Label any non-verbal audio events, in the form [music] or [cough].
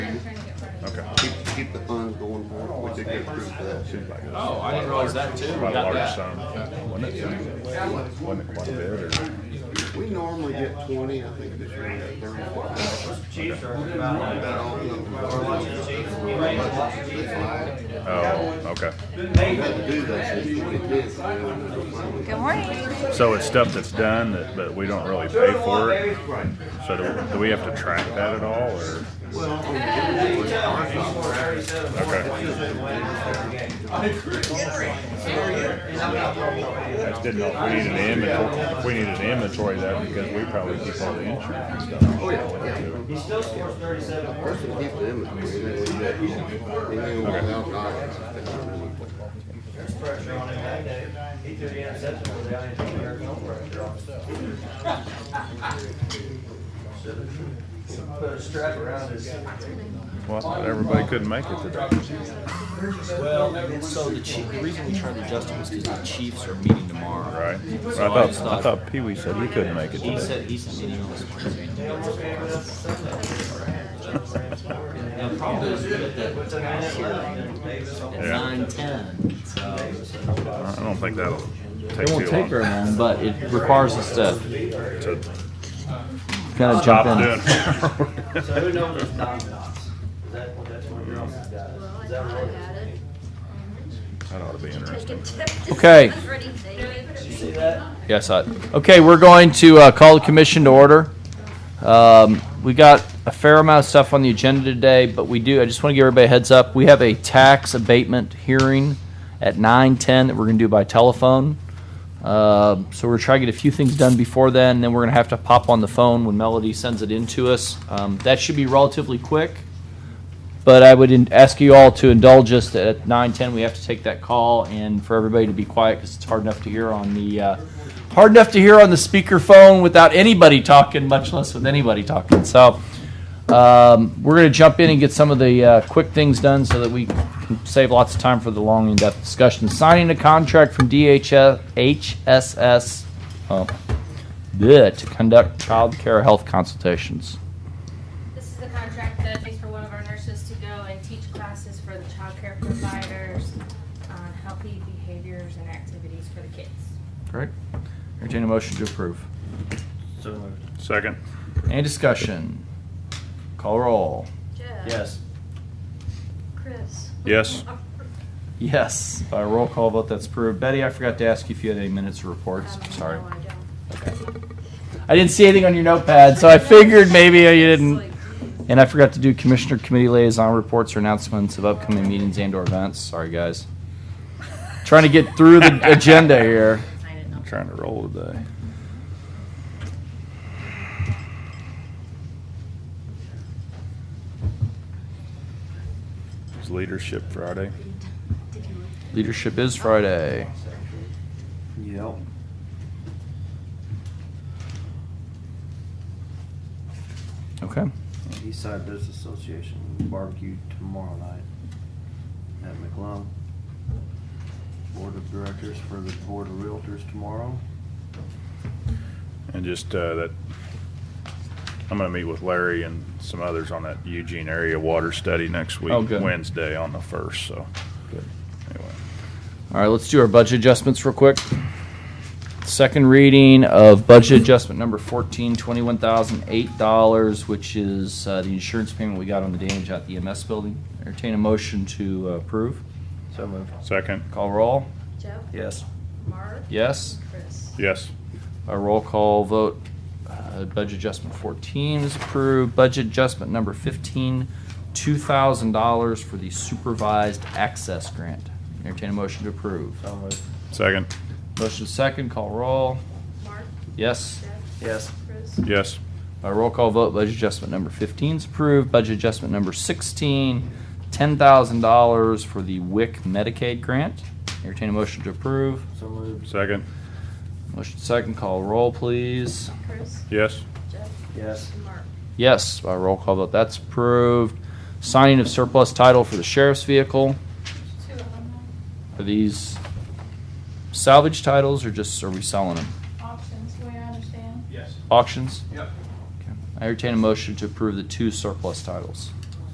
keep the funds going for it, we did get approved for that too. Oh, I didn't realize that too. We Quite a got large that. sum. Wasn't it, wasn't it quite a bit, or? We normally get twenty, I think this year we got thirty-four. About all of them. We Oh, okay. had to do that since twenty ten, so we don't have the money. Good morning. So it's stuff that's done that, but we don't really pay for it? So do, do we have to track that at all, or? Well, on the invoice, our contract, I just didn't know if we needed an inventory, if we needed an inventory of that because we probably keep all the insurance and stuff. Oh, yeah, yeah. He still scores thirty-seven First we keep the inventory, and then we get, then we will have dollars. pressure on him that day. He threw the interception without any no pressure on himself. Should've Put a strap around his. Well, everybody couldn't make it today. Well, and so the chief, the reason we tried to adjust it was because the Chiefs are meeting tomorrow. Right. But So I just thought, I thought Pee Wee said he couldn't make it He today. said, he sent me an email this morning. The problem is we got that task here at Yeah. nine ten, so. I don't think that'll take It too won't take very long. long, but it requires us to to kind of jump Stop doing. in. [laughs] [laughs] So who knows his non dots? Is that, that's one of your office guys? Is that right? That ought to be interesting. Okay. Did you see that? Yes, I, okay, we're going to uh, call the commission to order. Um, We got a fair amount of stuff on the agenda today, but we do, I just want to give everybody a heads up. We have a tax abatement hearing at 9:10 that we're going to do by telephone. Um, So we're trying to get a few things done before then, and then we're going to have to pop on the phone when Melody sends it in to us. Um, That should be relatively quick, but I would in- ask you all to indulge us that at 9:10 we have to take that call and for everybody to be quiet because it's hard enough to hear on the, uh, hard enough to hear on the speakerphone without anybody talking, much less with anybody talking. So um, we're going to jump in and get some of the uh, quick things done so that we can save lots of time for the long in-depth discussion. Signing a contract from DHS, HSS, oh, bleh, to conduct child care health consultations. This is the contract that pays for one of our nurses to go and teach classes for the childcare providers on healthy behaviors and activities for the kids. Great. Entertain a motion to approve. So moved. Second. Any discussion? Call roll. Jeff. Yes. Chris. Yes. Yes. By roll call vote, that's approved. Betty, I forgot to ask you if you had any minutes or reports. Um, Sorry. no, I don't. I didn't see anything on your notepad, so I figured maybe you didn't. And I forgot to do commissioner committee liaison reports or announcements of upcoming meetings and or events. Sorry, guys. Trying to get [laughs] through the agenda here. I'm trying to roll today. It's Leadership Friday. Leadership is Friday. Yep. Okay. Eastside Business Association barbecue tomorrow night at McClung. Board of Directors for the Board of Realtors tomorrow. And just uh, that, I'm gonna meet with Larry and some others on that Eugene area water study next Oh, week, good. Wednesday on the first, so. Anyway, All right, let's do our budget adjustments real quick. Second reading of budget adjustment number fourteen, twenty-one thousand eight dollars, which is uh, the insurance payment we got on the damage at the EMS building. Entertain a motion to uh, approve. So moved. Second, Call roll. Jeff. Yes. Mark. Yes. Chris. yes, A roll call vote. Uh, budget adjustment fourteen is approved. Budget adjustment number fifteen, two thousand dollars for the supervised access grant. Entertain a motion to approve. So moved. second, Motion second. Call roll. Mark. Yes. Jeff. Yes. Chris. yes, By Uh, roll call vote, budget adjustment number 15 is approved. Budget adjustment number 16, $10,000 for the WIC Medicaid grant. Entertain a motion to approve. So moved. second, Motion second, call roll, please. Chris. yes, Jeff. Yes. Mark. Yes, by roll call vote, that's approved. Signing of surplus title for the sheriff's vehicle. Two of them. Are these salvage titles or just, are we selling them? options, the way I understand. Auctions? Yep. I entertain a motion to approve the two surplus titles.